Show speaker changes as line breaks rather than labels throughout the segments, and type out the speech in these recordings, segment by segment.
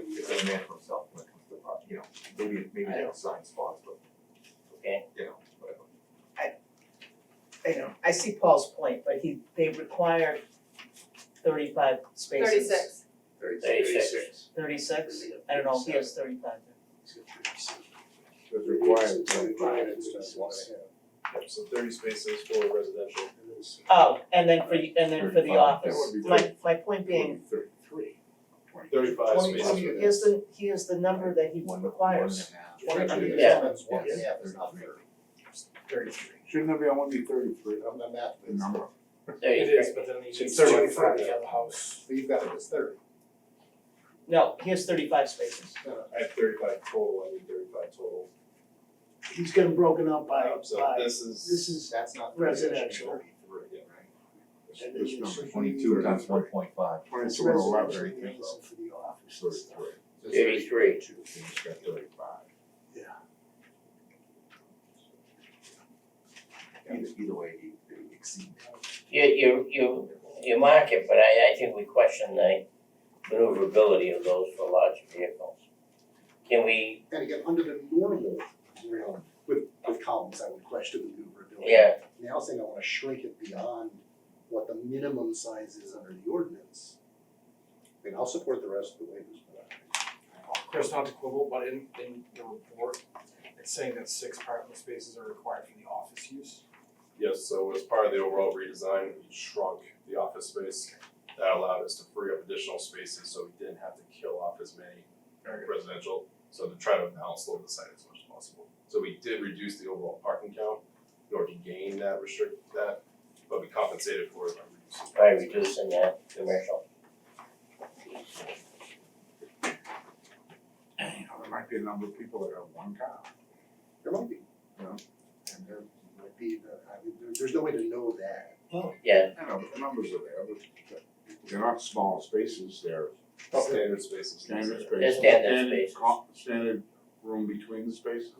the man himself when it comes to the project, you know, maybe, maybe they don't sign spots, but,
okay?
you know, whatever.
I know, I see Paul's point, but he, they require thirty-five spaces.
Thirty-six.
Thirty-six. Thirty-six? I don't know, he has thirty-five.
It's
required,
It's required, it's just one
So thirty spaces for residential.
and
Oh, and then for, y- and then for the
35,
office,
that
would be
my, my point being,
Thirty-three.
Thirty-five
twenty,
spaces.
yeah.
here's the, here's the number that he
One, one and
requires.
a half.
One hundred and
Yeah.
seven.
Yeah.
Yes,
Yeah.
there's not very-
Thirty-three.
Shouldn't it be, I want to be thirty-three, I'm not math,
the number.
It
Thirty-three.
is, but then
It's
you need
35,
twenty-five
yeah.
to have a house, leave that as thirty.
No, he has thirty-five spaces.
I have thirty-five total, I need thirty-five total.
He's getting broken up by,
Um, So
by,
this is.
this is,
That's not.
Residential.
Thirty-three, yeah.
and then
This
you should.
Twenty-two times one point five,
It's
Twenty-two and eleven.
residential needs for the office and stuff.
thirty-three.
Thirty-three.
You just got thirty-five.
Yeah.
Either, either way, you you exceed.
You, you, you, you mark it, but I, I think we question the maneuverability of those for large vehicles. Can we,
And again, under the normal realm with with columns, I would question the maneuverability.
yeah,
Now saying I wanna shrink it beyond what the minimum size is under the ordinance. I mean, I'll support the rest of the waivers, but I.
Chris, not to quibble, but in in the report, it's saying that six parking spaces are required for the office use.
Yes, so as part of the overall redesign, we shrunk the office space. That allowed us to free up additional spaces, so we didn't have to kill off as many residential, so to try to balance load the site as much as possible. So we did reduce the overall parking count in order to gain that restrict that, but we compensated for it by reducing.
by reducing that commercial?
You know, there might be a number of people that have one car. There might be. You know, and there might be, the- I mean, there there's no way to know that.
Yeah,
I know, but the numbers are there, but they're not small spaces, they're
Standard spaces.
They're standard standard spaces. co-
standard room between the spaces.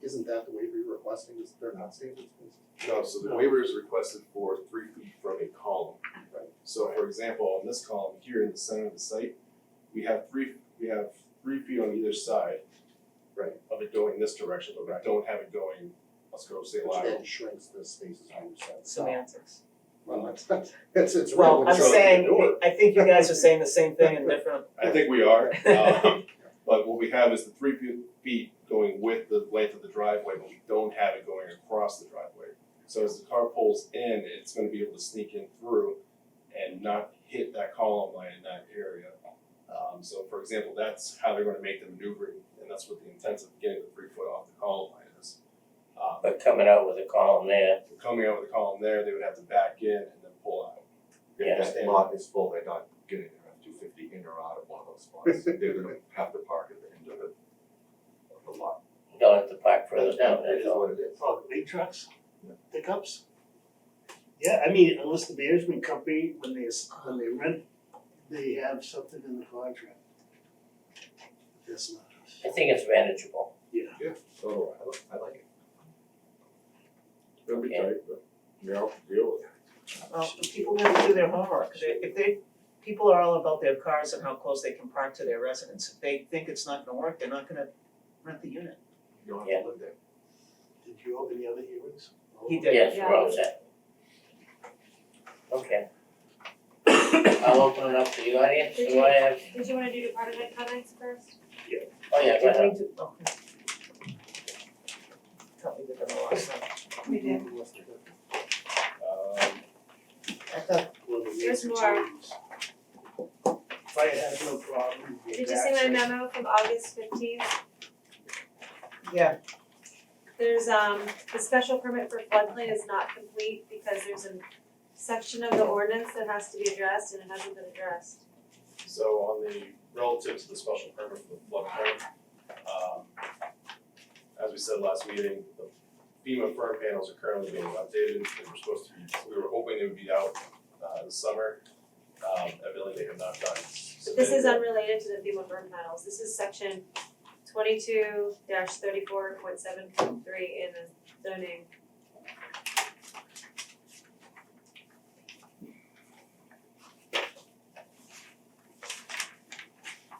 Isn't that the waiver you're requesting, is they're not standard spaces?
No, so the waiver is requested for three feet from a column.
Right.
So for example, on this column here in the center of the site, we have three, we have three feet on either side.
Right.
Of it going this direction, but we don't have it going, let's go say
Which
lateral.
then shrinks the spaces on each side.
semantics.
Well, that's, that's, it's.
Well,
relevant
I'm
to the
saying,
door.
I think you guys are saying the same thing in different,
I think we are, um, but what we have is the three fe- feet going with the length of the driveway, but we don't have it going across the driveway. So as the car pulls in, it's gonna be able to sneak in through and not hit that column line in that area. Um, so for example, that's how they're gonna make the maneuvering, and that's what the intent of getting the three foot off the column line is. Um,
but coming out with a column there,
coming out with a column there, they would have to back in and then pull out.
Yeah.
If that lot is full, they're not getting there at two fifty in or out of one of those spots, they're gonna have to park at the end of the, of the lot.
you don't have to park further down,
That
that's
is
all.
what it is.
Oh, the big trucks,
Yeah.
pickups? Yeah, I mean, unless the management company, when they, s- when they rent, they have something in the contract. That's not us.
I think it's manageable.
So I like, I like it.
It'll be
Yeah.
tight, but we all have to deal with it.
Well, people gotta do their homework, They- if they, people are all about their cars and how close they can park to their residence, if they think it's not gonna work, they're not gonna rent the unit.
You don't
Yeah.
have to live there.
Did you open the other hearings?
He did.
Yes, we're all
set. Okay. I'll open it up to the audience, do I have,
Did you wanna do department comments first?
oh yeah, go ahead.
Tell me that the last time.
We did.
Um,
I thought. Well, the
There's
major
more.
changes. Fire has no problem. the
Did you see my
access-
memo from August fifteenth?
Yeah,
There's, um, the special permit for floodplain is not complete because there's a section of the ordinance that has to be addressed and it hasn't been addressed.
So on the, relative to the special permit for the floodplain, um, as we said last meeting, the FEMA firm panels are currently being updated, they were supposed to be, we were hoping they would be out, uh, this summer. Um, evidently they have not done.
This is unrelated to the FEMA burn panels, this is section twenty-two thirty-four point seven point three in the zoning.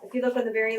If you look on the very